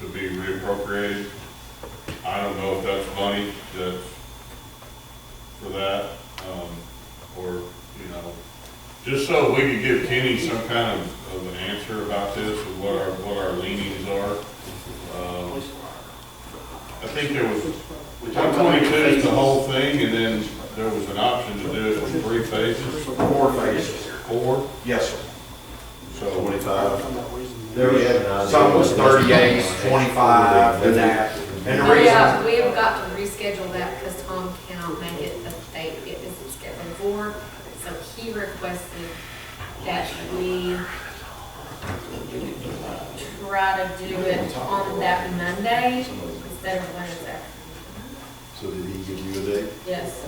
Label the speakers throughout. Speaker 1: to be reappropriated. I don't know if that's money that's for that, um, or, you know, just so we could give Kenny some kind of, of an answer about this, and what our, what our leanings are. Um, I think there was, one twenty-two is the whole thing, and then there was an option to do it in three phases,
Speaker 2: Four phases.
Speaker 1: four,
Speaker 2: Yes, sir.
Speaker 1: so.
Speaker 2: Twenty-five.
Speaker 3: There was,
Speaker 2: Some was thirty-eight, twenty-five, and that. And the
Speaker 4: We
Speaker 2: reason,
Speaker 4: have, we have got to reschedule that because Tom cannot make it the date it is scheduled for. So he requested that we try to do it on that Monday instead of Wednesday.
Speaker 5: So did he give you a date?
Speaker 4: Yes.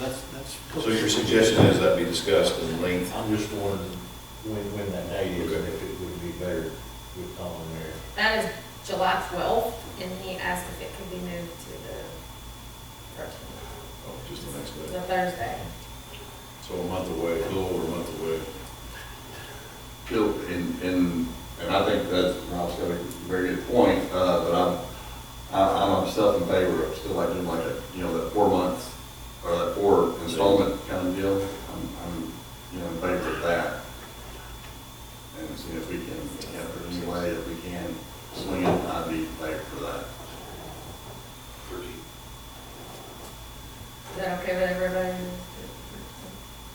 Speaker 6: That's, that's.
Speaker 5: So your suggestion is that be discussed in length?
Speaker 3: I'm just wondering when, when that date is, and if it would be better with Tom there.
Speaker 4: That is July twelfth and he asked if it could be moved to the thirteenth,
Speaker 5: Oh, Just the next
Speaker 4: the
Speaker 5: day.
Speaker 4: Thursday.
Speaker 5: So a month away, a little over a month away.
Speaker 7: Bill, and, and, and I think that's, Rob's got a very good point, uh, but I'm, I- I'm myself in favor of still like doing like a, you know, that four months, or that four installment kind of deal. I'm, I'm, you know, in favor of that. And see if we can, if there's any way that we can swing it, I'd be in favor for that.
Speaker 4: Is that okay with everybody?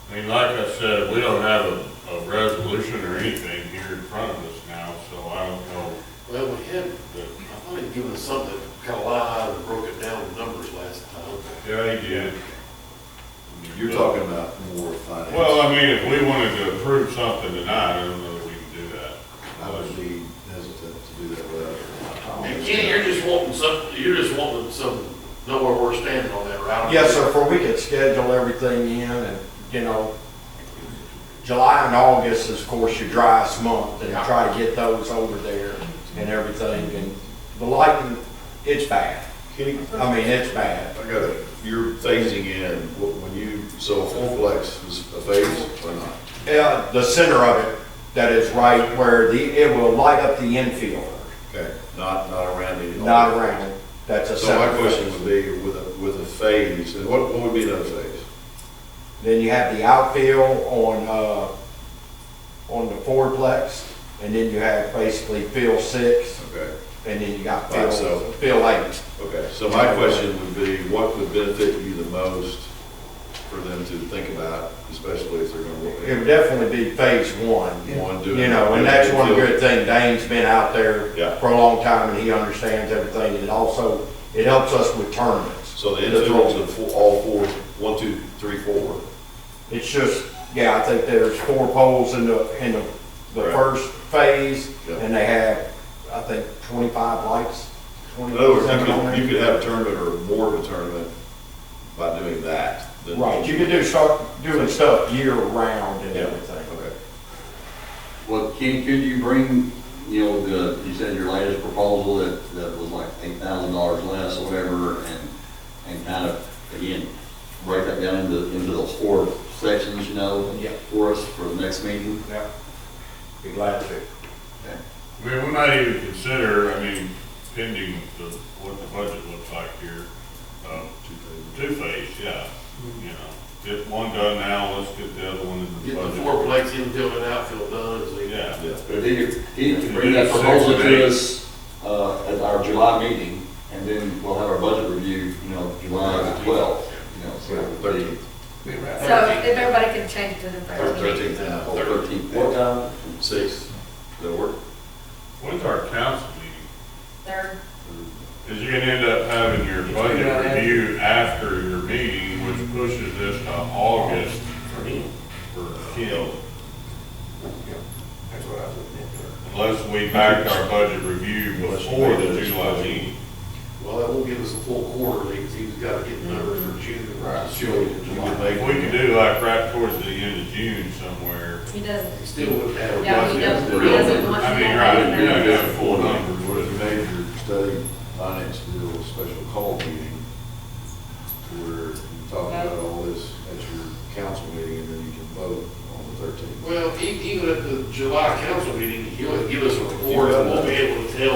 Speaker 1: I mean, like I said, we don't have a, a resolution or anything here in front of us now, so I don't know
Speaker 8: Well, we had,
Speaker 1: that,
Speaker 8: I thought he'd given us something, kind of lied and broke it down in numbers last time.
Speaker 1: yeah, he did.
Speaker 5: You're talking about more finance.
Speaker 1: Well, I mean, if we wanted to approve something tonight, I don't know that we can do that.
Speaker 5: I would be hesitant to do that without.
Speaker 8: And Kenny, you're just wanting some, you're just wanting some, know where we're standing on that route.
Speaker 2: yes, sir, for we could schedule everything in and, you know, July and August is, of course, your driest month and try to get those over there and everything. And the lighting, it's bad.
Speaker 5: Kenny,
Speaker 2: I mean, it's bad.
Speaker 5: I got it. You're phasing in, wh- when you, so full flex is a phase or not?
Speaker 2: Yeah, the center of it, that is right where the, it will light up the infield,
Speaker 5: Okay, not, not around any.
Speaker 2: not around. it. That's a
Speaker 5: So my
Speaker 2: separate
Speaker 5: question
Speaker 2: question.
Speaker 5: would be, with a, with a phase, and what, what would be another phase?
Speaker 2: Then you have the outfield on, uh, on the fourplex, and then you have basically field six,
Speaker 5: Okay.
Speaker 2: and then you got
Speaker 5: Right, so-
Speaker 2: field, field eight.
Speaker 5: Okay, so my question would be, what would benefit you the most for them to think about, especially if they're gonna work?
Speaker 2: It would definitely be phase one.
Speaker 5: One, do it.
Speaker 2: You know, and that's one good thing, Dane's been out there
Speaker 5: Yeah.
Speaker 2: for a long time, and he understands everything, and also, it helps us with tournaments.
Speaker 5: So the individuals of fo- all four, one, two, three, four,
Speaker 2: It's just, yeah, I think there's four poles in the, in the, the
Speaker 5: Right.
Speaker 2: first phase,
Speaker 5: Yeah.
Speaker 2: and they have, I think, twenty-five lights.
Speaker 5: in other words, you
Speaker 2: 25 on
Speaker 5: could,
Speaker 2: there.
Speaker 5: you could have a tournament or more of a tournament by doing that. than-
Speaker 2: Right, you could do, start doing stuff year-round and
Speaker 5: Yeah,
Speaker 2: everything.
Speaker 5: okay.
Speaker 7: Well, Ken, could you bring, you know, the, you said your latest proposal that, that was like eight thousand dollars less or whatever, and, and kind of, again, break that down into, into those four sections, you know?
Speaker 2: Yeah.
Speaker 7: For us, for the next meeting?
Speaker 2: Yeah. Be glad to.
Speaker 1: I mean, we might even consider, I mean, pending the, what the budget looks like here, um, two phase, yeah, you know. Get one done now, let's get the other one in the
Speaker 8: Get
Speaker 1: budget.
Speaker 8: the fourplex infield and outfield done, and see.
Speaker 1: Yeah,
Speaker 5: Yeah.
Speaker 7: But if you, if you bring that proposal to us, uh, at our July meeting, and then we'll have our budget review, you know, July twelfth, you know, so.
Speaker 5: Thirteenth.
Speaker 4: So if everybody can change it to the thirteenth.
Speaker 5: Thirteenth, yeah,
Speaker 7: Thirteenth, what time?
Speaker 5: sixth, that work?
Speaker 1: when's our council meeting?
Speaker 4: Third,
Speaker 1: Because you're gonna end up having your budget review after your meeting, which pushes this to August for Kim.
Speaker 3: That's what I was looking
Speaker 1: Unless we back our budget review before the July meeting.
Speaker 8: Well, that won't give us a full quarter, because he's got to get the numbers for June. Right.
Speaker 1: If we could do like right towards the end of June somewhere,
Speaker 4: he doesn't,
Speaker 8: Still wouldn't have. a
Speaker 4: yeah, he
Speaker 8: budget.
Speaker 4: doesn't, he doesn't want.
Speaker 1: I mean,
Speaker 4: to-
Speaker 1: right, you're not gonna have full numbers,
Speaker 5: What is major study finance deal, a special call meeting, where you talk about all this at your council meeting, and then you can vote on the thirteenth.
Speaker 8: Well, e- even at the July council meeting, he'll give us a report, and we'll be able to tell